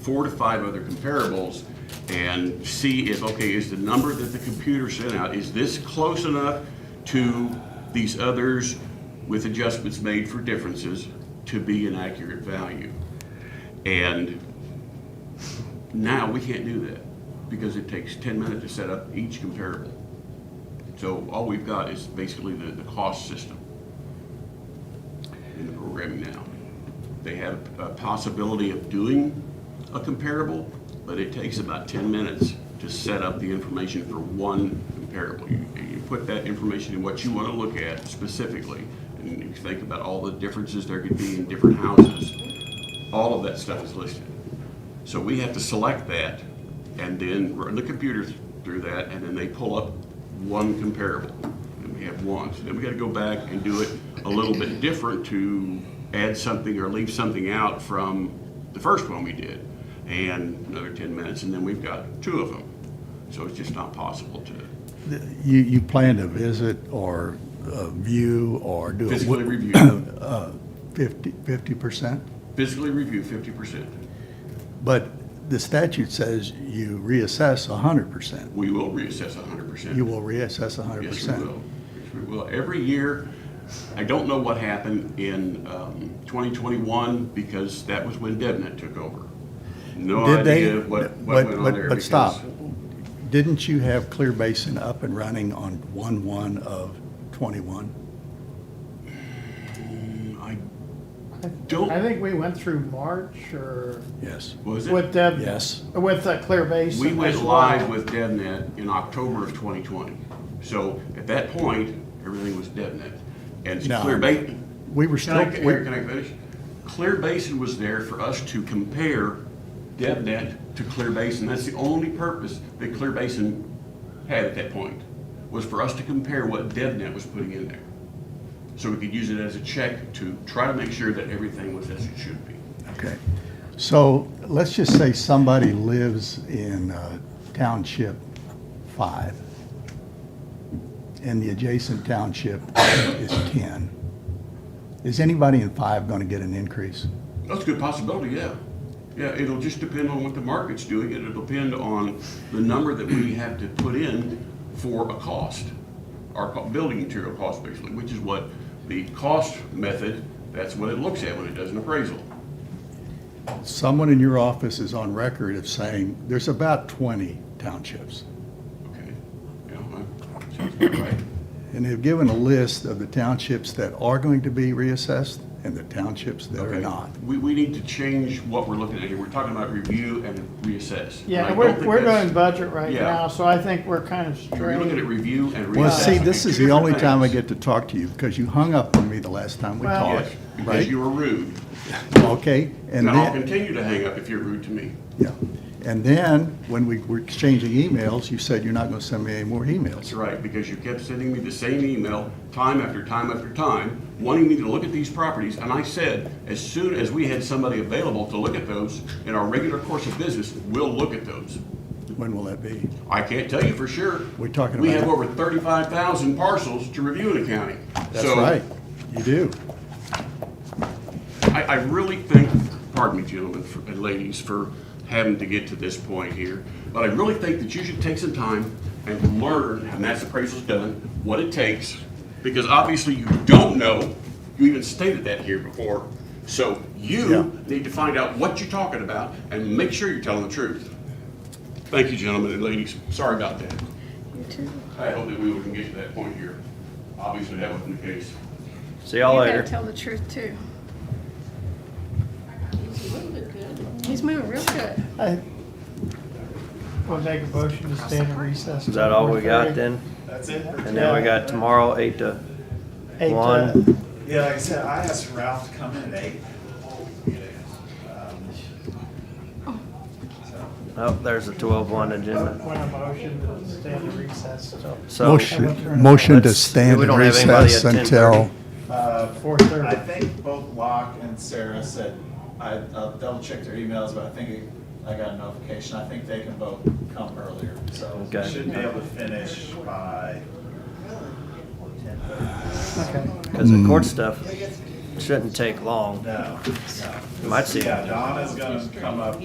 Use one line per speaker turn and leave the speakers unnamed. four to five other comparables and see if, okay, is the number that the computer sent out, is this close enough to these others with adjustments made for differences to be an accurate value? And now we can't do that because it takes ten minutes to set up each comparable. So all we've got is basically the, the cost system in the programming now. They have a possibility of doing a comparable, but it takes about 10 minutes to set up the information for one comparable. You you put that information in what you want to look at specifically, and you think about all the differences there could be in different houses. All of that stuff is listed. So we have to select that and then run the computer through that, and then they pull up one comparable. And we have one. So then we got to go back and do it a little bit different to add something or leave something out from the first one we did. And another 10 minutes, and then we've got two of them. So it's just not possible to
You, you plan to visit or uh, view or do a
physically review,
fifty, fifty percent?
physically review 50%.
But the statute says you reassess hundred percent.
We will reassess 100%.
You will reassess hundred
Yes, we
percent.
will. Yes, we will. Every year, I don't know what happened in um, 2021 because that was when DevNet took over. No
Did they?
idea what
but-
what went on
but-
there.
But
because-
stop. Didn't you have Clear Basin up and running on one-one of twenty-one?
I don't-
I think we went through March or
Yes.
Was
with
it?
Deb.
Yes.
With uh, Clear Basin.
We went
as well.
live with DevNet in October of 2020. So at that point, everything was DevNet. And
No.
Clear Basin,
We were
Can I,
still,
can
we-
I can I finish? Clear Basin was there for us to compare DevNet to Clear Basin. That's the only purpose that Clear Basin had at that point, was for us to compare what DevNet was putting in there. So we could use it as a check to try to make sure that everything was as it should be.
Okay, so let's just say somebody lives in uh, Township 5, and the adjacent township is 10. Is anybody in 5 going to get an increase?
That's a good possibility, yeah. Yeah, it'll just depend on what the market's doing, and it'll depend on the number that we have to put in for a cost, our co- building material cost basically, which is what the cost method, that's what it looks at when it does an appraisal.
Someone in your office is on record of saying, there's about 20 townships,
Okay, yeah, well, sounds about right.
and they've given a list of the townships that are going to be reassessed and the townships that are
Okay.
not.
We, we need to change what we're looking at here. We're talking about review and reassess. And I
Yeah,
don't
we're,
think
we're
that's-
doing budget right
Yeah.
now, so I think we're kind of
We're looking at
straight.
review and reassess.
Well, see,
They're
this
two
is the
different
only time I
things.
get to talk to you, because you hung up on me the last time we
Well-
talked,
Yes,
right?
because you were rude.
Okay, and
And I'll
then,
continue to hang up if you're rude to me.
yeah, and then, when we were exchanging emails, you said you're not gonna send me any more
That's
emails.
right, because you kept sending me the same email, time after time after time, wanting me to look at these properties, and I said, as soon as we had somebody available to look at those, in our regular course of business, we'll look at those.
When will that be?
I can't tell you for sure.
We're talking
We
about-
have over thirty-five thousand parcels to review in the county.
That's
So,
right, you do.
I, I really think, pardon me, gentlemen for- and ladies, for having to get to this point here, but I really think that you should take some time and learn, and that's appraisal's done, what it takes, because obviously you don't know, you even stated that here before. So
Yeah.
you need to find out what you're talking about and make sure you're telling the truth. Thank you, gentlemen and ladies. Sorry about that. I hope that we can get to that point here. Obviously, that wasn't the case.
See y'all
You
later.
gotta tell the truth too. He's moving real good.
I- We'll make a motion to stay in recess.
Is that all we got then?
That's it.
And then we got tomorrow, eight to
Eight, uh,
one.
Yeah, like I said, I asked Ralph to come in at eight. Um, so,
Oh, there's a twelve one agenda.
When a motion to stay in recess till
So,
Oh, Motion, motion to
Let's-
stand
we
in
don't have anybody
recess
at
until,
10:30.
uh,
four
I
thirty.
think both Locke and Sarah said, I, I'll double check their emails, but I think it- I got a notification. I think they can both come earlier, so we
Okay.
should be able to finish by ten thirty.
Okay.
cause the court stuff shouldn't take long.
No, no.
Might see.
Yeah, Donna's gonna come up